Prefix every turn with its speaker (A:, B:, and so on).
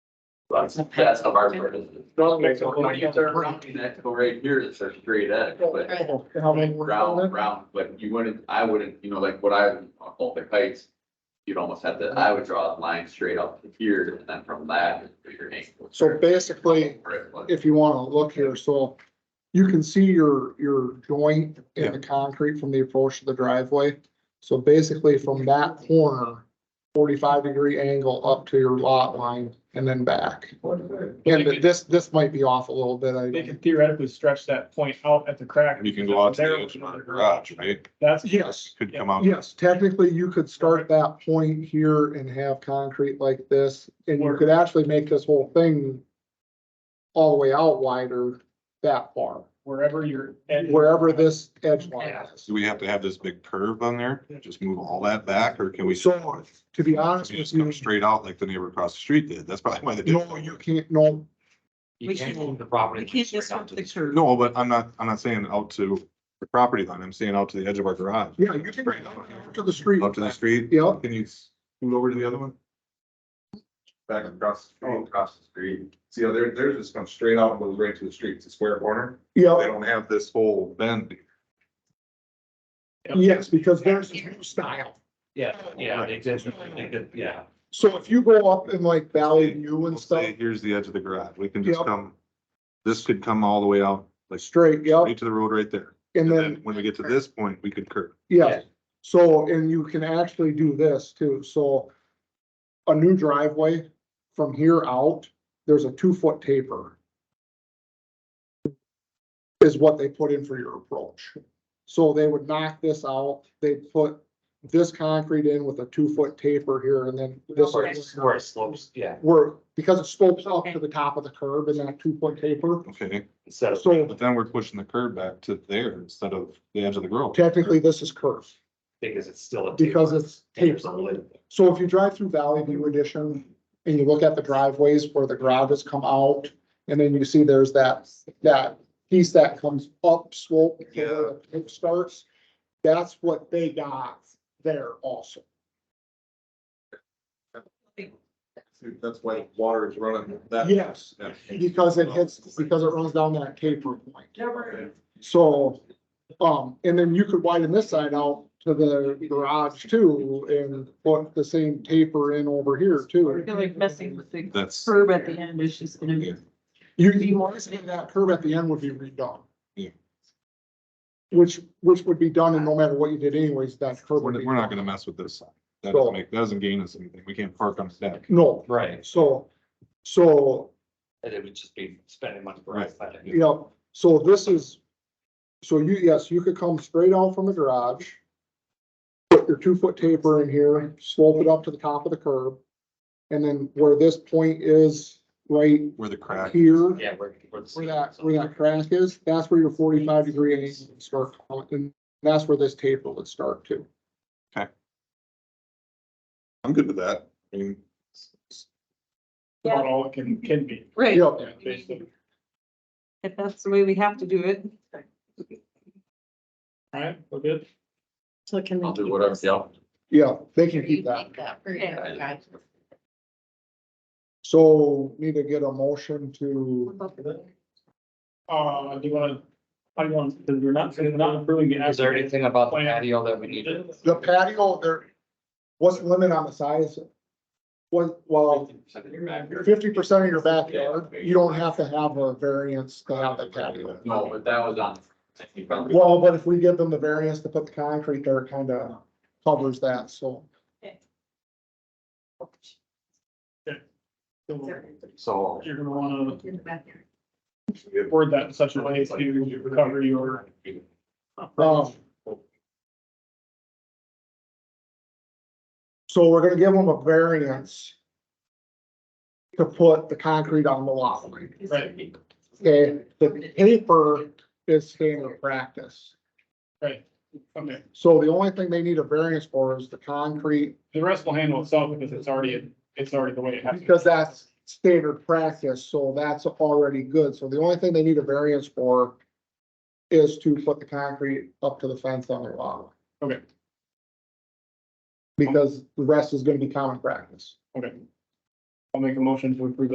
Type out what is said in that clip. A: That's, that's the hard part. isn't it?
B: Oh,
C: Don't make
A: So when you turn around, you that go right here, it's a straight edge, but round, round, but you wouldn't, I wouldn't, you know, like what I, on Baltic Heights. You'd almost have to, I would draw a line straight up to here and then from that, your angle.
B: So basically,
A: Right, like-
B: if you wanna look here, so you can see your, your joint in the concrete from the approach to the driveway. So basically from that corner, forty-five degree angle up to your lot line and then back. And
C: They could-
B: this, this might be off a little bit.
C: They
B: I,
C: could theoretically stretch that point out at the crack.
D: You can go out to the ocean on the garage, right?
C: That's,
B: yes,
D: Could come out.
B: yes, technically you could start that point here and have concrete like this. And you could actually make this whole thing all the way out wider that far,
C: wherever you're.
B: wherever this edge line is.
D: Do we have to have this big curve on there? Just move all that back or can we?
B: So, to be honest with
D: Just come
B: you,
D: straight out like the neighbor across the street did. That's probably why they did.
B: no, you can't, no,
E: You can't move the property. straight onto the-
D: No, but I'm not, I'm not saying out to the property line. I'm saying out to the edge of our garage.
B: yeah, you can bring it up to the street.
D: Up to the street.
B: Yeah.
D: Can you move over to the other one?
F: back across, the street, across the street. See, how they're, they're just come straight out and goes right to the street, it's a square corner.
D: They
B: Yeah,
D: don't have this whole bend.
B: yes, because there's this new style.
E: Yeah, yeah, they just, they could, yeah.
B: So if you go up in like Valley View and
D: We'll say,
B: stuff,
D: here's the edge of the garage. We can just
B: Yep.
D: come, this could come all the way out, like
B: straight, yeah,
D: straight to the road right there.
B: and
D: And
B: then
D: then when we get to this point, we could curve.
B: Yeah, so, and you can actually do this too, so. A new driveway from here out, there's a two foot taper. Is what they put in for your approach. So they would knock this out, they put this concrete in with a two foot taper here and then this.
E: Where it- where it slopes, yeah,
B: Where, because it slopes up to the top of the curb and that two foot taper,
D: Okay,
E: instead of,
B: so
D: but then we're pushing the curb back to there instead of the edge of the grove.
B: technically this is curved.
E: because it's still. a
B: Because
E: taper.
B: it's taped.
E: Taper's unbelievable.
B: So if you drive through Valley View Edition and you look at the driveways where the garages come out, and then you see there's that, that piece that comes up slope. to where the It starts, that's what they got there also.
F: That's why water is running that.
B: Yes,
F: that-
B: because it hits, because it runs down that taper point. So, um, and then you could widen this side out to the garage too and put the same taper in over here
G: I
B: too.
G: feel like messing with the
D: That's,
G: curb at the end is just gonna be.
B: You, you want to see that curve at the end would be redone.
D: Yeah.
B: Which, which would be done and no matter what you did anyways, that curve
D: we're
B: would be.
D: we're not gonna
B: done.
D: mess with this side. That
B: So-
D: doesn't make, that doesn't gain us anything. We can't park on the deck.
B: No,
E: Right,
B: so, so,
E: and it would just be spending money for
D: Right.
E: outside. of it.
B: yeah, so this is. So you, yes, you could come straight out from the garage. Put your two foot taper in here, slope it up to the top of the curb. And then where this point is right
D: Where the crack,
B: here.
E: Yeah, where, where. the-
B: Where that, where that crack is, that's where your forty-five degree angle would start, and that's where this taper would start too.
D: I'm good with that. I mean,
C: About all it can, can be.
G: Right.
B: Yeah,
C: Basically.
G: If that's the way we have to do it.
C: All right, we're good.
H: So can
A: I'll
H: they
A: do
H: keep
A: whatever,
H: this?
A: yeah.
B: yeah, they can
H: Can
B: keep
H: you
B: that.
H: keep that for
G: Yeah.
H: your guys?
B: So need to get a motion to,
C: Uh, do you wanna, how do you want, because we're not, we're not approving the.
E: Is there anything about the
C: Plan.
E: patio that we need to?
B: the patio, there, what's the limit on the size? What, well, fifty percent of your backyard, you don't have to have a variance to have the patio.
A: No, but that was on. I think, probably-
B: Well, but if we give them the variance to put the concrete there, it kind of covers that, so.
E: So.
C: You're gonna wanna
H: In the backyard.
C: word that in such a way to cover your.
B: Um, So we're gonna give them a variance to put the concrete on the lot line.
C: Right.
B: Okay, the paper is standard practice.
C: Okay,
B: So the only thing they need a variance for is the concrete,
C: the rest will handle itself because it's already, it's already the way it has. to be.
B: because that's standard practice, so that's already good. So the only thing they need a variance for is to put the concrete up to the fence on the lot. line.
C: Okay.
B: Because the rest is gonna be common practice.
C: Okay. I'll make a motion to approve